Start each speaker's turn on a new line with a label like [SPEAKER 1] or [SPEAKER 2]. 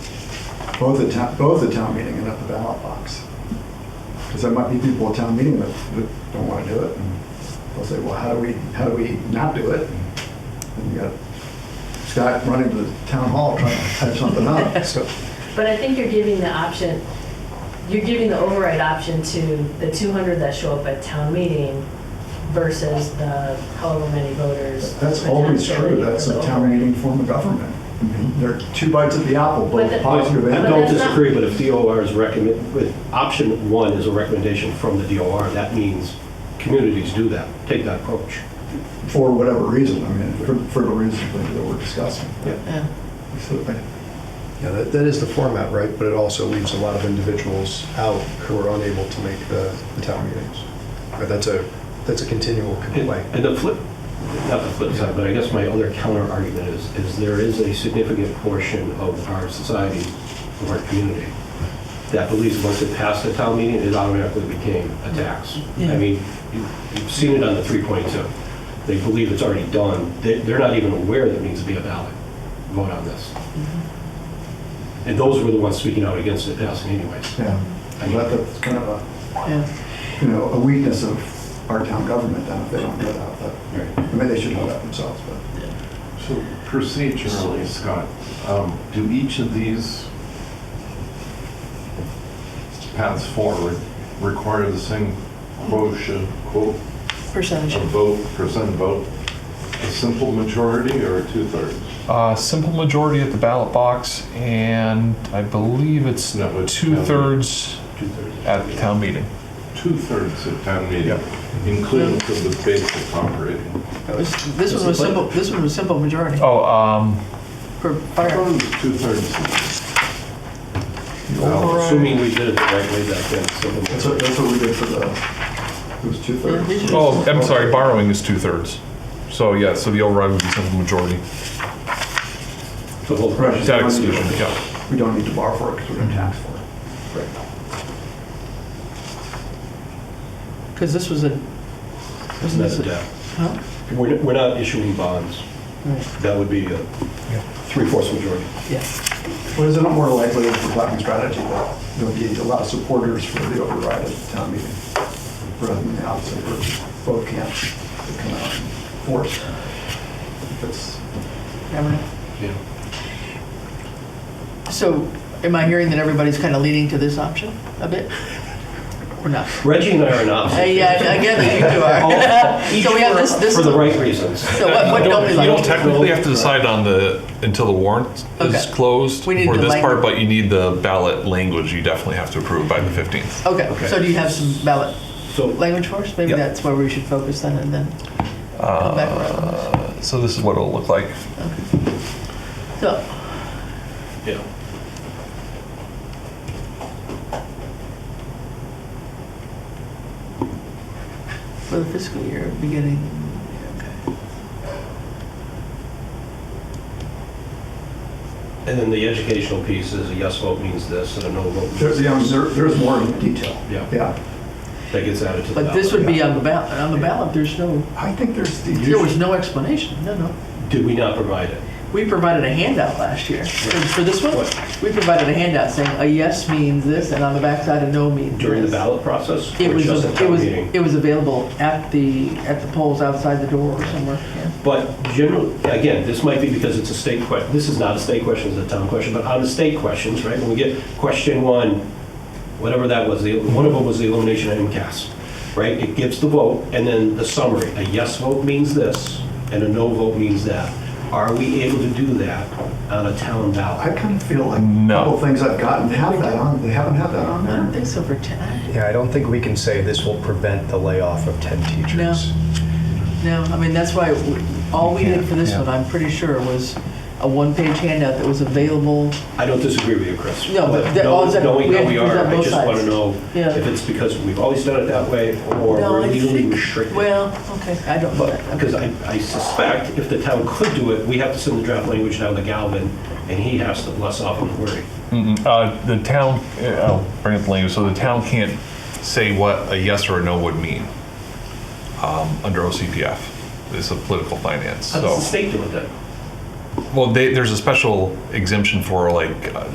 [SPEAKER 1] both the town, both the town meeting and at the ballot box. Because there might be people at town meeting that, that don't want to do it. And They'll say, well, how do we, how do we not do it? And you got Scott running to the town hall trying to type something up, so.
[SPEAKER 2] But I think you're giving the option, you're giving the override option to the 200 that show up at town meeting versus the however many voters.
[SPEAKER 1] That's
[SPEAKER 2] the
[SPEAKER 1] always
[SPEAKER 2] town
[SPEAKER 1] true,
[SPEAKER 2] voted
[SPEAKER 1] that's
[SPEAKER 2] for
[SPEAKER 1] a
[SPEAKER 2] the
[SPEAKER 1] town
[SPEAKER 2] override.
[SPEAKER 1] meeting form of government. I mean, There are two bites at the apple,
[SPEAKER 2] But
[SPEAKER 1] both
[SPEAKER 2] the-
[SPEAKER 1] positive
[SPEAKER 2] but
[SPEAKER 1] and
[SPEAKER 3] I don't
[SPEAKER 2] that's not-
[SPEAKER 3] disagree, but if DOR is recommend, with, option one is a recommendation from the DOR, that means communities do that, take that approach.
[SPEAKER 1] for whatever reason, I mean, for, for the reason that we're discussing.
[SPEAKER 3] Yeah.
[SPEAKER 2] Yeah.
[SPEAKER 1] So, I-
[SPEAKER 4] Yeah, that, that is the format, right? But it also leaves a lot of individuals out who are unable to make the, the town meetings. Right, that's a, that's a continual
[SPEAKER 3] And
[SPEAKER 4] complaint.
[SPEAKER 3] and the flip, not the flip side, but I guess my other counter argument is, is there is a significant portion of our society, of our community, that believes once it passed the town meeting, it automatically became a tax. I mean, you- you've seen it on the 3.2. They believe it's already done. They- They're not even aware that it needs to be a ballot vote on this. And those were the ones speaking out against it passing anyways.
[SPEAKER 1] Yeah, and that- that's kind of a,
[SPEAKER 2] Yeah.
[SPEAKER 1] you know, a weakness of our town government, then, if they don't know that, but, I mean, they should know that themselves, but.
[SPEAKER 5] So procedurally, Scott, um, do each of these paths forward require the same quotient, quote,
[SPEAKER 2] Percentage.
[SPEAKER 5] a vote, percent vote, a simple majority or a two-thirds?
[SPEAKER 6] Uh, simple majority at the ballot box, and I believe it's
[SPEAKER 5] No, it's town
[SPEAKER 6] two
[SPEAKER 5] meeting.
[SPEAKER 6] thirds at the town meeting.
[SPEAKER 5] Two-thirds of town meeting, inclusive of the basic operating.
[SPEAKER 7] That was, this one was simple, this one was simple majority
[SPEAKER 6] Oh, um,
[SPEAKER 7] for
[SPEAKER 5] I thought
[SPEAKER 7] fire.
[SPEAKER 5] it was two-thirds.
[SPEAKER 3] Assuming we did it the right way back then. so the-
[SPEAKER 1] That's what, that's what we did for the, it was two
[SPEAKER 7] Yeah, this
[SPEAKER 1] thirds.
[SPEAKER 7] is-
[SPEAKER 6] oh, I'm sorry, borrowing is two thirds. So yeah, so the override would be simple majority.
[SPEAKER 3] the whole
[SPEAKER 1] Right.
[SPEAKER 6] Debt exclusion, yeah.
[SPEAKER 1] We don't need to borrow for it because we're going to tax for it. Right.
[SPEAKER 7] Because this was a,
[SPEAKER 3] is
[SPEAKER 7] wasn't
[SPEAKER 3] not
[SPEAKER 7] this
[SPEAKER 3] a
[SPEAKER 7] a,
[SPEAKER 3] debt.
[SPEAKER 7] huh?
[SPEAKER 3] We're, we're not issuing bonds.
[SPEAKER 7] Right,
[SPEAKER 3] That would be a three-fourths majority.
[SPEAKER 7] yeah.
[SPEAKER 1] But is it not more likely for blocking strategy that there'll be a lot of supporters for the override at the town meeting? Rather than the opposite, where both camps come out and force. That's,
[SPEAKER 7] Never mind. So am I hearing that everybody's kind of leaning to this option a bit? Or not?
[SPEAKER 3] Reggie and I are not.
[SPEAKER 7] Uh, Yeah, I I get that you two are. So we have this, this,
[SPEAKER 3] For the
[SPEAKER 7] so
[SPEAKER 3] right reasons.
[SPEAKER 7] what, what don't we
[SPEAKER 6] You don't
[SPEAKER 7] like?
[SPEAKER 6] technically have to decide on the, until the warrant is
[SPEAKER 7] Okay.
[SPEAKER 6] closed for
[SPEAKER 7] We need the
[SPEAKER 6] this part,
[SPEAKER 7] language.
[SPEAKER 6] but you need the ballot language you definitely have to approve by the 15th.
[SPEAKER 7] Okay, so do you have some ballot
[SPEAKER 3] So,
[SPEAKER 7] language for us? Maybe
[SPEAKER 6] Yeah.
[SPEAKER 7] that's where we should focus then and then come back around. on this.
[SPEAKER 6] So this is what it'll look like.
[SPEAKER 7] So,
[SPEAKER 3] yeah.
[SPEAKER 7] For the fiscal year beginning, okay.
[SPEAKER 3] And then the educational piece is a yes vote means this and a no vote means
[SPEAKER 1] there's, yeah, I mean, there- there's more in detail.
[SPEAKER 3] Yeah.
[SPEAKER 1] Yeah.
[SPEAKER 3] that gets added to the
[SPEAKER 7] But this
[SPEAKER 3] ballot.
[SPEAKER 7] would be on the ballot, on the ballot, there's no,
[SPEAKER 1] I think there's the.
[SPEAKER 7] there was no explanation, no, no.
[SPEAKER 3] Did we not provide it?
[SPEAKER 7] We provided a handout last year. For for this one, we provided a handout saying a yes means this, and on the backside, a no means this.
[SPEAKER 3] During the ballot process?
[SPEAKER 7] It
[SPEAKER 3] Or
[SPEAKER 7] was,
[SPEAKER 3] just at
[SPEAKER 7] it
[SPEAKER 3] town
[SPEAKER 7] was,
[SPEAKER 3] meeting?
[SPEAKER 7] it was available at the, at the polls outside the door or somewhere, yeah.
[SPEAKER 3] But generally, again, this might be because it's a state question, this is not a state question, it's a town question, but on the state questions, right, when we get question one, whatever that was, the- one of them was the elimination of MCAS, right? It gives the vote and then the summary, a yes vote means this and a no vote means that. Are we able to do that on a town
[SPEAKER 1] I
[SPEAKER 3] ballot?
[SPEAKER 1] kind of feel like a
[SPEAKER 6] No.
[SPEAKER 1] couple things I've gotten have that on, they haven't had that
[SPEAKER 7] I
[SPEAKER 1] on
[SPEAKER 7] don't
[SPEAKER 1] there.
[SPEAKER 7] think so for 10,
[SPEAKER 4] Yeah, I don't think we can say this will prevent the layoff of 10 teachers.
[SPEAKER 7] no, I mean, that's why, we- all we did for this
[SPEAKER 4] Yeah, yeah.
[SPEAKER 7] one, I'm pretty sure, was a one-page handout that was available
[SPEAKER 3] I don't disagree with you, Chris.
[SPEAKER 7] No, but
[SPEAKER 3] But
[SPEAKER 7] that- all
[SPEAKER 3] know-
[SPEAKER 7] that-
[SPEAKER 3] Knowing
[SPEAKER 7] we
[SPEAKER 3] how
[SPEAKER 7] have
[SPEAKER 3] we
[SPEAKER 7] to
[SPEAKER 3] are,
[SPEAKER 7] present
[SPEAKER 3] I
[SPEAKER 7] both
[SPEAKER 3] just want to
[SPEAKER 7] sides.
[SPEAKER 3] know
[SPEAKER 7] Yeah.
[SPEAKER 3] if it's because we've always done it that way or we're
[SPEAKER 7] I
[SPEAKER 3] legally
[SPEAKER 7] think-
[SPEAKER 3] restricted.
[SPEAKER 7] Well, okay, I don't know
[SPEAKER 3] But,
[SPEAKER 7] that.
[SPEAKER 3] because I, I suspect if the town could do it, we have to send the draft language down to Galvin, and he has to bless off on the wording.
[SPEAKER 6] Mm-mm. Uh, the town, uh, I'll bring up the language, so the town can't say what a yes or a no would mean um, under OCPF. It's a political finance,
[SPEAKER 3] How does
[SPEAKER 6] so.
[SPEAKER 3] the state do it then?
[SPEAKER 6] Well, they, there's a special exemption for like uh,